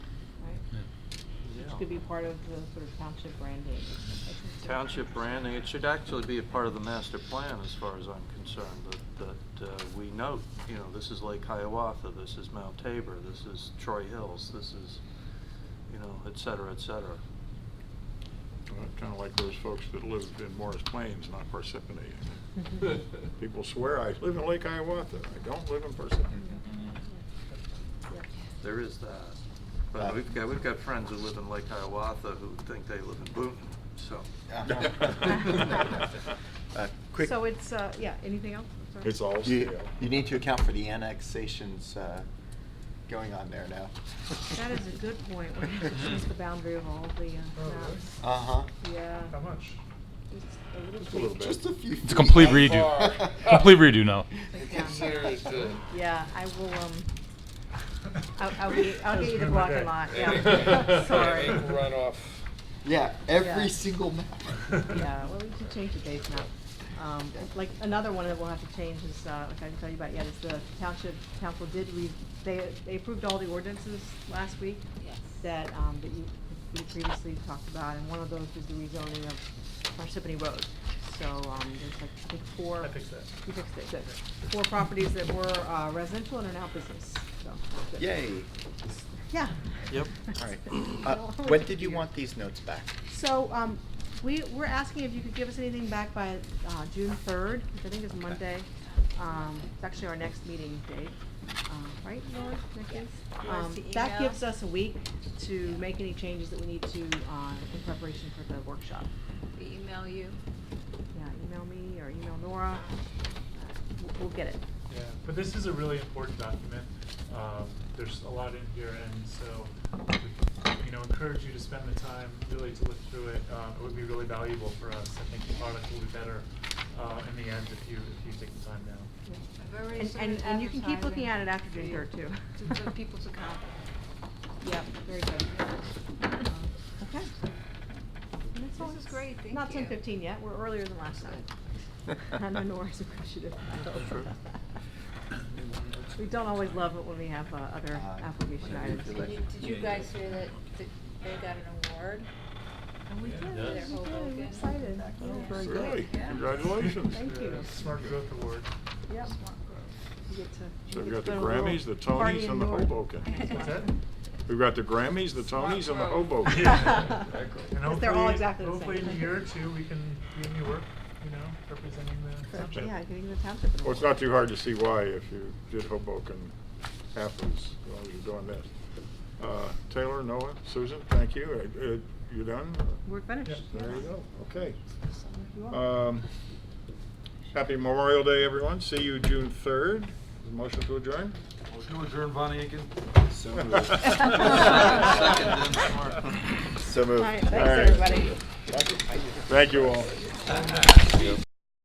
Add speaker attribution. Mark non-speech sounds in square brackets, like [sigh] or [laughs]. Speaker 1: could be part of the sort of township branding.
Speaker 2: Township branding, it should actually be a part of the master plan as far as I'm concerned, that, that uh, we note, you know, this is Lake Hiawatha, this is Mount Tabor, this is Troy Hills, this is, you know, et cetera, et cetera.
Speaker 3: Kind of like those folks that live in Morris Plains, not Parsippany.
Speaker 4: [laughs]
Speaker 3: People swear, I live in Lake Hiawatha. I don't live in Parsippany.
Speaker 2: There is that. But we've got, we've got friends who live in Lake Hiawatha who think they live in Boonton, so.
Speaker 5: [laughs]
Speaker 2: [laughs]
Speaker 5: Uh, Quick,
Speaker 1: So it's, uh, yeah, anything else? I'm sorry.
Speaker 3: It's all
Speaker 5: you,
Speaker 3: scale.
Speaker 5: you need to account for the annexations uh, going on there now.
Speaker 1: That is a good point, we're gonna have to change the boundary of all the uh, maps.
Speaker 5: Uh-huh.
Speaker 1: Yeah.
Speaker 3: Oh, How much?
Speaker 1: Just a little
Speaker 3: Just a little
Speaker 1: bit.
Speaker 3: bit.
Speaker 5: Just a few.
Speaker 6: It's a complete
Speaker 5: feet.
Speaker 6: redo. [laughs] Complete redo now.
Speaker 1: Yeah, I will, um, I'll, I'll get, I'll get you the block and lot, yeah.
Speaker 3: [laughs] Yeah.
Speaker 1: Sorry.
Speaker 4: Run off.
Speaker 5: Yeah,
Speaker 1: Yeah.
Speaker 5: every single map.
Speaker 1: Yeah, well, we should change the base map. Um, like, another one that we'll have to change is, uh, which I can tell you about yet, is the township council did, re they, they approved all the ordinances last week that, um, that you, we previously talked about, and one of those was the rezoning of Parsippany Road. So, um, there's like, I think four.
Speaker 7: I fixed that.
Speaker 1: You fixed it, good. Four properties that were, uh, residential and are now business, so. good.
Speaker 5: [laughs] Yay.
Speaker 1: Yeah. [laughs]
Speaker 2: Yep.
Speaker 5: All right. Uh, When did you want these notes back?
Speaker 1: So, [laughs] um, we, we're asking if you could give us anything back by, uh, June third, which I think is Monday. Um, it's actually our next meeting date, um, right, Lori, next is? Um,
Speaker 8: the
Speaker 1: that
Speaker 8: email?
Speaker 1: gives us a week to make any changes that we need to, uh, in preparation for the workshop.
Speaker 8: We email you.
Speaker 1: Yeah, email me or email Nora, we'll, we'll get it.
Speaker 7: Yeah, but this is a really important document. Um, there's a lot in here, and so, we, you know, encourage you to spend the time really to look through it. Um, it would be really valuable for us. I think the product will be better, uh, in the end if you, if you take the time now.
Speaker 1: Yeah.
Speaker 8: I've already
Speaker 1: And,
Speaker 8: started
Speaker 1: and, and you can keep looking at it after June
Speaker 8: advertising
Speaker 1: third too. [laughs]
Speaker 8: to- to- For people to come.
Speaker 1: Yep, very
Speaker 3: [laughs]
Speaker 1: good. Okay. And that's all.
Speaker 8: This is great, thank
Speaker 1: Not ten
Speaker 8: you.
Speaker 1: fifteen yet, we're earlier than last
Speaker 3: [laughs]
Speaker 1: time. I know Nora's
Speaker 5: [laughs]
Speaker 1: appreciative.
Speaker 5: Sure.
Speaker 1: [laughs] We don't always love it when we have uh, other
Speaker 5: Uh,
Speaker 1: application
Speaker 5: whenever you
Speaker 1: items.
Speaker 5: feel
Speaker 8: Did
Speaker 5: like
Speaker 8: you,
Speaker 5: it.
Speaker 8: did you guys hear that, that they got an award?
Speaker 1: And Oh, we did, we
Speaker 8: Yes.
Speaker 1: did, we're excited.
Speaker 5: Back
Speaker 1: We were
Speaker 5: up.
Speaker 1: very good.
Speaker 3: Really?
Speaker 8: Yeah.
Speaker 3: Congratulations.
Speaker 1: Thank you.
Speaker 7: Yeah, Smart
Speaker 1: [laughs]
Speaker 7: Growth Award. [laughs]
Speaker 1: Yep.
Speaker 8: Smart growth.
Speaker 1: We get to-
Speaker 3: So
Speaker 1: we
Speaker 3: we've
Speaker 1: get
Speaker 3: got
Speaker 1: to go to
Speaker 3: the
Speaker 1: a little
Speaker 3: Grammys, the
Speaker 1: party
Speaker 3: Tonys,
Speaker 1: in
Speaker 3: and the
Speaker 1: Nora.
Speaker 3: Hoboken.
Speaker 7: What's that?
Speaker 3: We've got the Grammys, the Tonys, and the
Speaker 4: [laughs]
Speaker 3: Hoboken.
Speaker 1: Yeah.
Speaker 7: And
Speaker 1: Because they're all
Speaker 7: hopefully-
Speaker 1: exactly the same.
Speaker 7: Hopefully in a year or two, we can be in New York, you know, representing the
Speaker 1: Correct.
Speaker 7: township.
Speaker 1: Yeah, getting the township.
Speaker 3: Well, it's not too hard to see why if you did Hoboken half as long as you're doing this. Uh, Taylor, Noah, Susan, thank you. Uh, uh, You done?
Speaker 1: We're finished.
Speaker 7: Yeah.
Speaker 3: There you
Speaker 1: yes.
Speaker 3: go. Okay.
Speaker 1: So if you are.
Speaker 3: Um, Happy Memorial Day, everyone. See you June 3rd. Motion to adjourn?
Speaker 5: So
Speaker 3: Second,
Speaker 5: moved.
Speaker 2: Second, then, Mark.
Speaker 5: So moved.
Speaker 1: All right, thanks,
Speaker 3: All right.
Speaker 1: everybody.
Speaker 3: Thank you all.